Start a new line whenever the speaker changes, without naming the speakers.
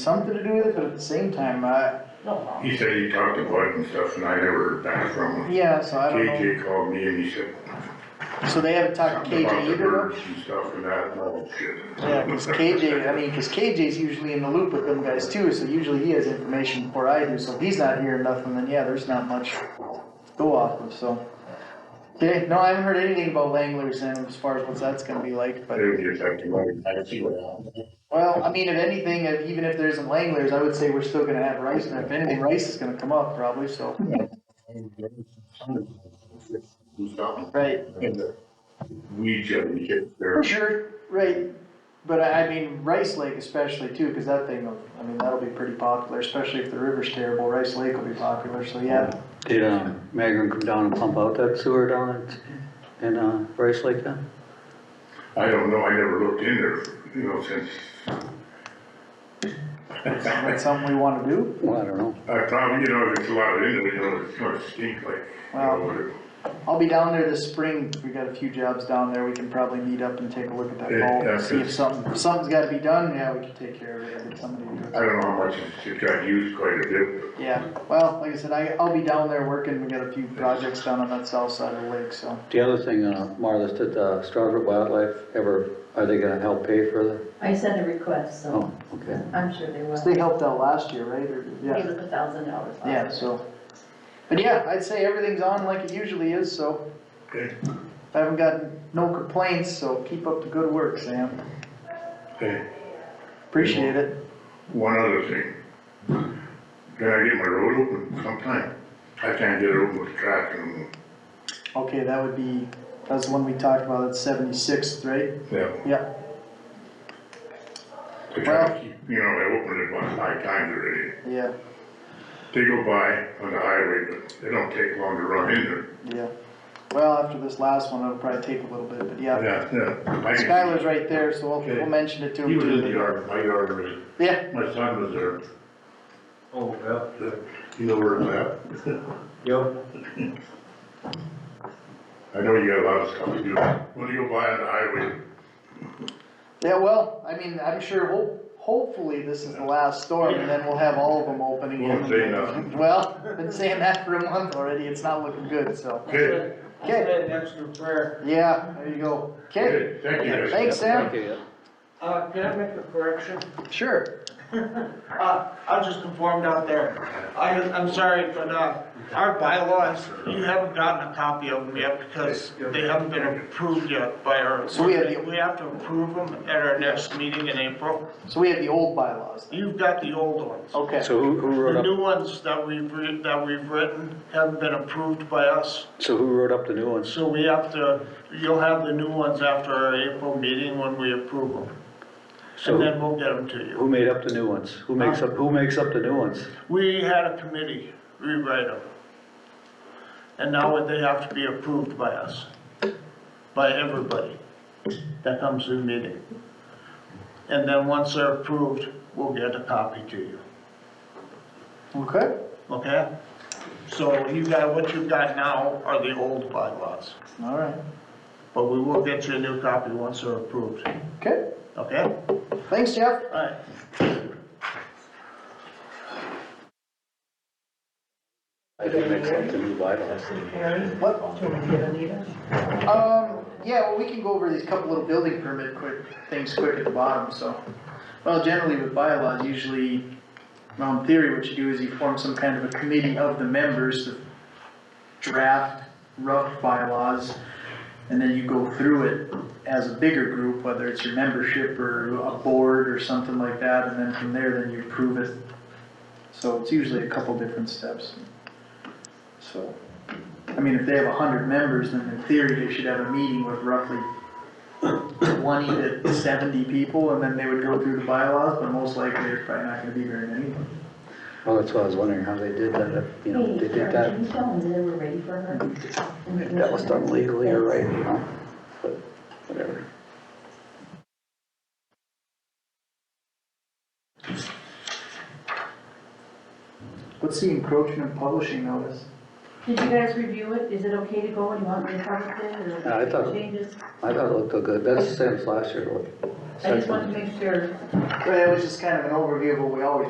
something to do with it, but at the same time, I,
He said he talked to Bud and stuff, and I never heard back from him.
yeah, so I don't know.
KJ called me and he said
So they haven't talked to
something about
KJ
the
either, though?
birds and stuff and that, and all that shit.
Yeah, cause KJ, I mean, cause KJ's usually in the loop with them guys too, so usually he has information before I do, so if he's not hearing nothing, then yeah, there's not much to go off of, so. Okay, no, I haven't heard anything about Langlers and as far as what that's gonna be like, but,
They just have to like, I see what happened.
well, I mean, if anything, if- even if there isn't Langlers, I would say we're still gonna have Rice, and if anything, Rice is gonna come up probably, so.
Do something.
Right.
And the weed chip, you get there.
For sure, right, but I, I mean, Rice Lake especially too, cause that thing, will- I mean, that'll be pretty popular, especially if the river's terrible, Rice Lake will be popular, so yeah.
Did, uh, Magrum come down and pump out that sewer down at, in, uh, Bryce Lake then?
I don't know, I never looked in there, you know, since,
That's something we wanna do?
Well, I don't know.
I probably, you know, there's a lot of in there, you know, it's gonna stink like. you know,
Wow.
what it-
I'll be down there this spring, we got a few jobs down there, we can probably meet up and take a look at that
Yeah,
vault, and
yeah,
see if
cause-
something, if something's gotta be done, yeah, we can take care of it, get somebody to do
I
it.
don't know how much, it's- it got used quite a bit, but
Yeah, well, like I said, I, I'll be down there working, we got a few projects down on that south side of the lake, so.
The other thing, uh, Marlis, did, uh, Strasburg Wildlife ever, are they gonna help pay for the,
I sent a request, so
oh, okay.
I'm sure they will.
So They helped out last year, right, or, yeah?
It was a thousand dollars.
Yeah, so, but yeah, I'd say everything's on like it usually is, so.
Okay.
I haven't gotten no complaints, so keep up the good work, Sam.
hey,
Appreciate it.
one other thing. Can I get my road open sometime? I can't get it open with traffic and,
Okay, that would be, that's the one we talked about, that's seventy-sixth, right?
yeah.
Yeah,
To try to keep, you know, I opened it about five times already.
yeah,
They go by on the highway, but they don't take long to run in there.
yeah. Well, after this last one, it'll probably take a little bit, but yeah.
Yeah, yeah. I can-
Skylar's right there, so we'll, we'll
Okay.
mention it to him.
He was
too,
in
but-
the yard, my yard already.
Yeah,
My son was there.
Oh, well,
You know where it's
yep,
at? I know you got a lot of stuff to do. When you go by on the highway,
yeah, well, I mean, I'm sure, ho- hopefully this is the last storm and then we'll have all of them open again.
Won't say nothing.
Well, been saying that for a month already, it's not looking good, so.
Good,
Okay,
an extra prayer.
yeah, there you go. Okay,
good, thank you. guys.
Thanks, Sam.
Thank you, yeah.
Uh, can I make a correction?
Sure.
Uh, I was just informed out there. I, I'm sorry, but, uh, our bylaws, you haven't gotten a copy of them yet because they haven't been approved yet by our.
So we have the-
We have to approve them at our next meeting in April.
So we have the old bylaws.
You've got the old ones.
Okay,
So who, who
The
wrote up,
new ones that we've, re- that we've written haven't been approved by us.
so who wrote up the new ones?
So we have to, you'll have the new ones after our April meeting when we approve them.
So
And then we'll get them to you.
Who made up the new ones? Who makes up, who makes up the new ones?
We had a committee rewrite them. And now they have to be approved by us, by everybody that comes to the meeting. And then once they're approved, we'll get a copy to you,
okay,
okay? So you got, what you've got now are the old bylaws,
all right,
but we will get you a new copy once they're approved,
okay.
okay?
Thanks, Jeff.
All right.
I did make up the new bylaws.
What? Um, yeah, well, we can go over these couple little building permit quick, things quick at the bottom, so. Well, generally with bylaws, usually, well, in theory, what you do is you form some kind of a committee of the members to draft rough bylaws, and then you go through it as a bigger group, whether it's your membership or a board or something like that, and then from there, then you approve it. So it's usually a couple different steps. So. I mean, if they have a hundred members, then in theory, they should have a meeting with roughly twenty to seventy people, and then they would go through the bylaws, but most likely, there's probably not gonna be very many.
Well, that's why I was wondering how they did that, if, you know, they did that,
Can you tell them they were ready for her?
if that was done legally or right, you know, but whatever.
What's the encroachment publishing notice?
Did you guys review it? Is it okay to go? Do you want me to part of it or
Yeah, Uh, I thought-
changes?
I thought it looked good, that's the same as last year,
I just wanted to make sure
But it was just kind of an overview of what we always